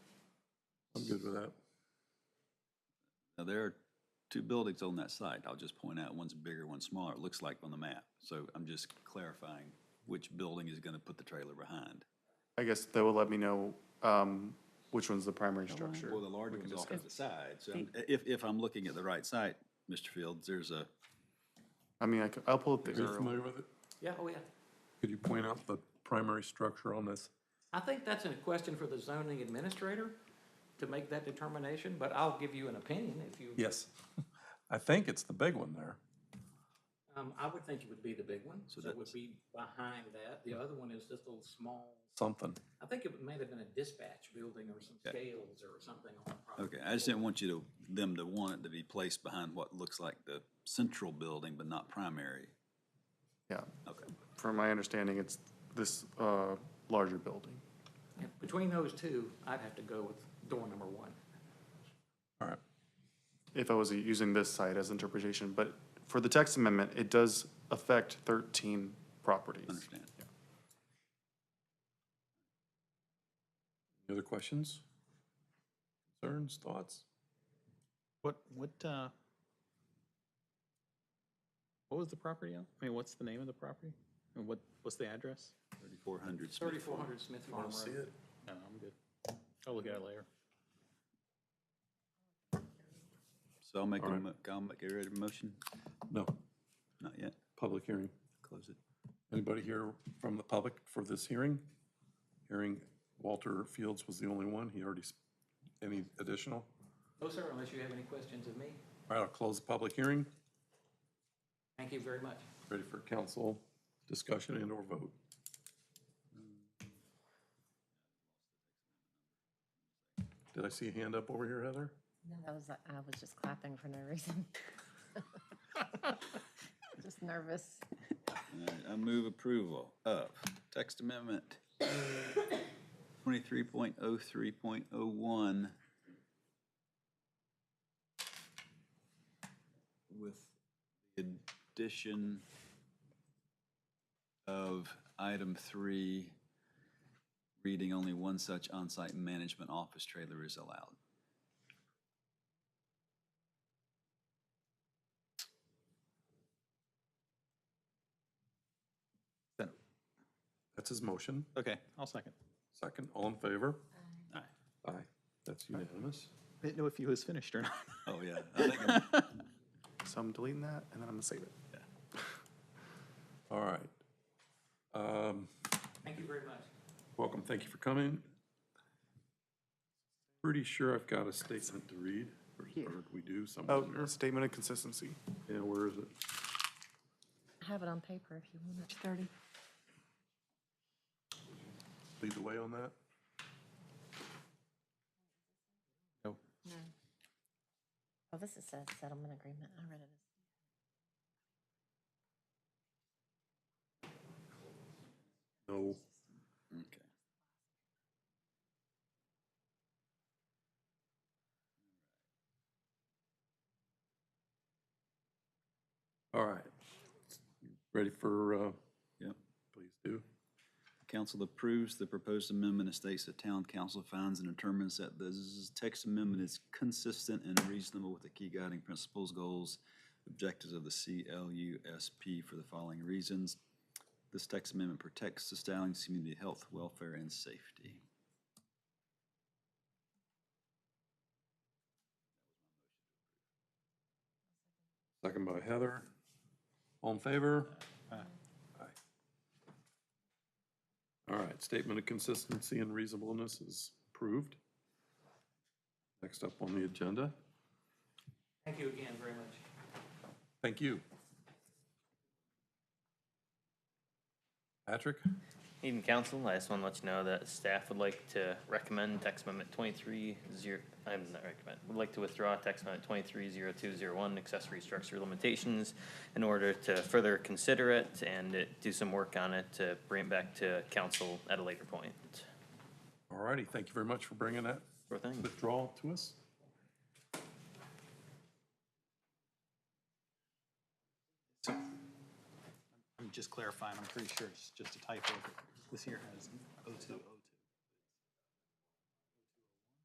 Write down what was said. good with that. Now, there are two buildings on that site. I'll just point out, one's bigger, one's smaller, it looks like on the map. So I'm just clarifying which building is going to put the trailer behind. I guess that will let me know um, which one's the primary structure. Well, the larger one's off to the side. So I'm- if, if I'm looking at the right site, Mr. Fields, there's a, I mean, I c- I'll pull up the Are you aerial. familiar with it? Yeah, oh yeah. Could you point out the primary structure on this? I think that's a question for the zoning administrator to make that determination, but I'll give you an opinion if you, Yes. I think it's the big one there. um, I would think it would be the big one. So it that's- would be behind that. The other one is just a little small, Something. I think it may have been a dispatch building or some scales or something on the property. okay, I just didn't want you to, them to want it to be placed behind what looks like the central building, but not primary. Yeah, Okay. from my understanding, it's this uh, larger building. Yeah, Between those two, I'd have to go with door number one. All right. if I was using this site as interpretation, but for the text amendment, it does affect thirteen properties. Understand. Any other questions? Concerns, thoughts? What, what, uh, what was the property on? I mean, what's the name of the property? And what, what's the address? Thirty-four hundred Smith Thirty-four hundred Smith Farm Road. it. No, I'm good. I'll look at it later. So I'll make a, Alright. mo- I'll make a ready motion? No, Not yet. public hearing. Close it. Anybody here from the public for this hearing? Hearing Walter Fields was the only one. He already, s- any additional? No, Oh, sir, unless you have any questions of me. All right, I'll close the public hearing. Thank you very much. Ready for council discussion and or vote? Did I see a hand up over here, Heather? No, I was, I was just clapping for no reason. Just nervous. Alright, I move approval of text amendment twenty-three point oh three point oh one with the addition of item three, reading only one such on-site management office trailer is allowed. That's his motion. Okay, I'll second. Second, all in favor? Aye. Aye. That's unanimous. I Didn't know if you was finished or not. Oh, yeah, I think I'm So I'm deleting that and then I'm gonna save it. All right. Um, Thank you very much. Welcome, thank you for coming. Pretty sure I've got a statement to read, or or we do Oh, somewhere. statement of consistency. Yeah, where is it? I have it on paper if you want it. Thirty. Lead the way on that? No. Oh, this is a settlement agreement. I read it. No. Okay. All right. Ready for, uh, Yep. please do. Council approves the proposed amendment and states that town council finds and determines that the z- text amendment is consistent and reasonable with the key guiding principles, goals, objectives of the CLUSP for the following reasons. This text amendment protects the Stallings community health, welfare, and safety. Second by Heather. All in favor? Aye. All right, statement of consistency and reasonableness is approved. Next up on the agenda, Thank you again very much. thank you. Patrick, Evening, council. I just want to let you know that staff would like to recommend text amendment twenty-three zero, I'm not recommend, would like to withdraw text amendment twenty-three zero two zero one accessory structure limitations in order to further consider it and uh, do some work on it to bring it back to council at a later point. all righty, thank you very much for bringing that Sure thing. withdrawal to us. I'm just clarifying, I'm pretty sure it's just a typo. but This here has O two O